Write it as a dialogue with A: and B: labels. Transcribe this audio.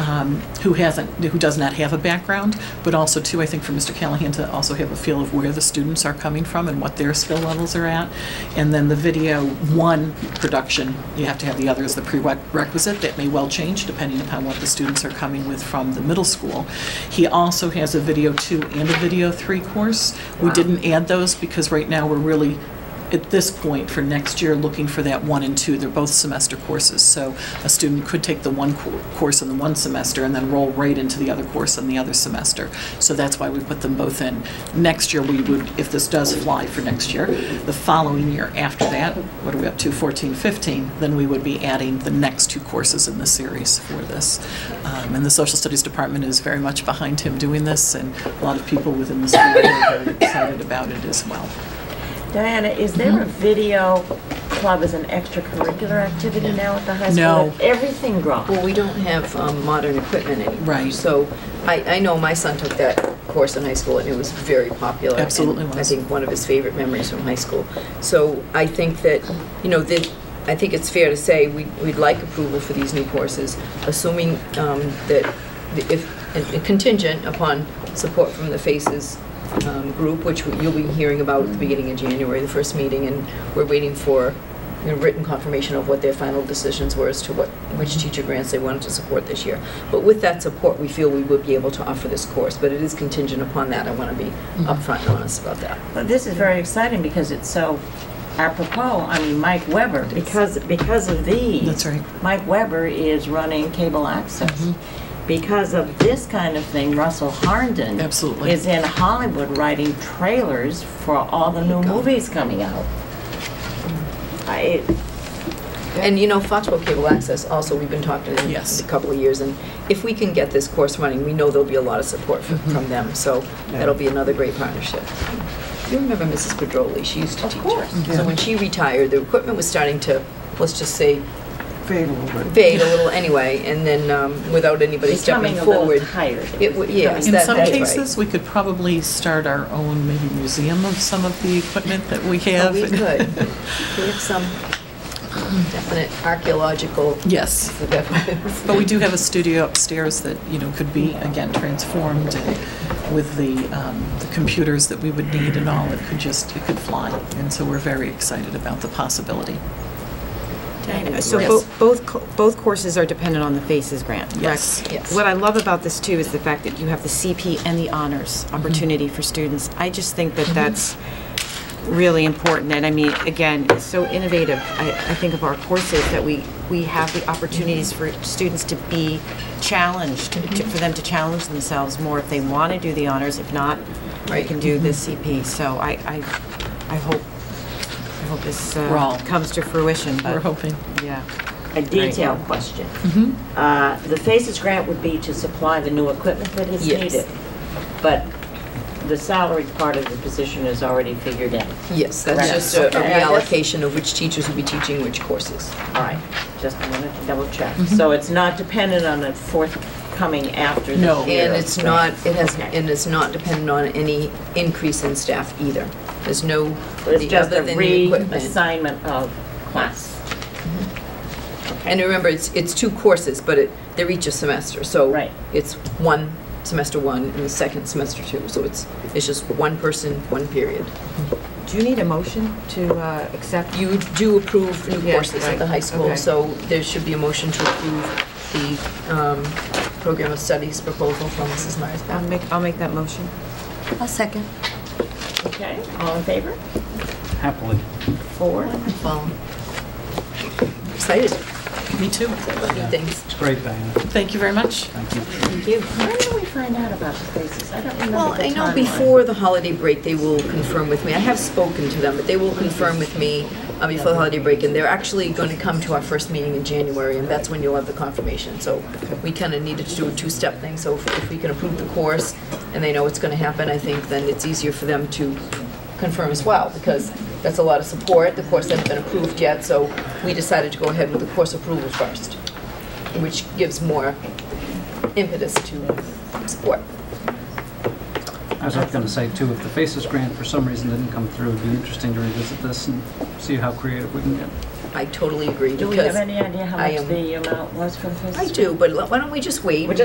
A: um, who hasn't, who does not have a background, but also too, I think for Mr. Callahan to also have a feel of where the students are coming from and what their skill levels are at. And then the video one production, you have to have the other as the prerequisite. That may well change depending upon what the students are coming with from the middle school. He also has a video two and a video three course. We
B: Wow.
A: didn't add those because right now we're really at this point for next year looking for that one and two. They're both semester courses. So a student could take the one co- course in the one semester and then roll right into the other course in the other semester. So that's why we put them both in. Next year, we would, if this does fly for next year, the following year after that, what are we up to, 14, 15, then we would be adding the next two courses in the series for this. Um, And the Social Studies Department is very much behind him doing this, and a lot of people within the school are very excited about it as well.
B: Diana, is
A: Mm-hmm.
B: there a video club as an extracurricular activity now at the high school?
A: No.
B: Like, Everything dropped.
C: Well, we don't have um, modern equipment anymore.
A: Right.
C: So I, I know my son took that course in high school and it was very popular.
A: Absolutely
C: and I
A: was.
C: think one of his favorite memories from high school. So I think that, you know, that, I think it's fair to say we, we'd like approval for these new courses, assuming um, that if, and contingent upon support from the FACES um, group, which you'll be hearing about at the beginning of January, the first meeting, and we're waiting for you know, written confirmation of what their final decisions were as to what, which teacher grants they wanted to support this year. But with that support, we feel we would be able to offer this course, but it is contingent upon that. I want to be upfront and honest about that.
B: Well, This is very exciting because it's so apropos. I mean, Mike Weber, because, because of these.
A: That's right.
B: Mike Weber is running cable access.
A: Mm-hmm.
B: Because of this kind of thing, Russell Harndon.
A: Absolutely.
B: Is in Hollywood writing trailers for all the new movies coming out.
A: Mm.
B: I,
C: And you know, Foxborough Cable Access, also, we've been talking to them
A: Yes.
C: a couple of years, and if we can get this course running, we know there'll be a lot of support from, from them, so that'll be another great partnership. You remember Mrs. Pedroli, she used to teach us. So when she retired, the equipment was starting to, let's just say, fade a little anyway, and then um, without anybody stepping
B: becoming a little
C: forward.
B: tired.
C: It, wa- yes,
A: In
C: that-
A: some
C: that's right.
A: cases, we could probably start our own maybe museum of some of the equipment that we
C: Oh,
A: have.
C: We could. We have some definite archaeological,
A: Yes, but we do have a studio upstairs that, you know, could be, again, transformed and with the, um, the computers that we would need and all, it could just, it could fly. And so we're very excited about the possibility.
D: Diana, So
A: Yes.
D: bo- both, co- both courses are dependent on the FACES grant, correct?
A: Yes.
C: Yes.
D: What I love about this too is the fact that you have the CP and the honors opportunity for students. I just think that that's really important, and I mean, again, it's so innovative, I, I think of our courses, that we, we have the opportunities for students to be challenged, to- for them to challenge themselves more if they want to do the honors, if not, they
C: Right.
D: can do the CP, so I, I, I hope, I hope this
A: We're all-
D: uh, comes to fruition, but.
A: We're hoping.
D: Yeah.
B: A detailed question. Uh, The FACES grant would be to supply the new equipment that is
C: Yes.
B: needed. But the salary part of the position is already figured in.
C: yes, that's
B: Correct.
C: just a a
B: Okay, I guess-
C: reallocation of which teachers will be teaching which courses.
B: All right, just wanted to double check.
C: Mm-hmm.
B: So it's not dependent on a forthcoming after the
A: No.
B: year.
C: And it's not, it has,
B: Okay.
C: and it's not dependent on any increase in staff either. There's no,
B: It's
C: the-
B: just a
C: other than the equipment.
B: reassignment of class.
C: And remember, it's, it's two courses, but it, they're each a semester, so.
B: Right.
C: It's one, semester one, and the second semester two, so it's, it's just one person, one period.
D: Do you need a motion to uh, accept?
C: You do approve new
D: Yeah,
C: courses at the high
D: right,
C: school,
D: okay.
C: so there should be a motion to approve the um, program of studies proposal from Mrs. Myers.
D: I'll make, I'll make that motion.
C: A second.
B: Okay, all in favor?
E: Happily.
B: Four.
C: Well, excited,
A: Me too.
C: new things.
E: It's great, Diana.
A: Thank you very much.
E: Thank you.
C: Thank you.
B: When did we find out about the FACES? I don't remember
C: Well,
B: the
C: I know
B: timeline.
C: before the holiday break, they will confirm with me. I have spoken to them, but they will confirm with me uh, before the holiday break, and they're actually going to come to our first meeting in January, and that's when you'll have the confirmation. So we kind of needed to do a two-step thing, so if if we can approve the course and they know it's going to happen, I think then it's easier for them to confirm as well, because that's a lot of support. The course hasn't been approved yet, so we decided to go ahead with the course approval first, which gives more impetus to support.
E: I was going to say too, if the FACES grant for some reason didn't come through, it'd be interesting to revisit this and see how creative we can get.
C: I totally agree.
B: Do we
C: because
B: have any idea how
C: I
B: much
C: am-
B: the amount was for the FACES?
C: I do, but why don't we just wait?
B: We're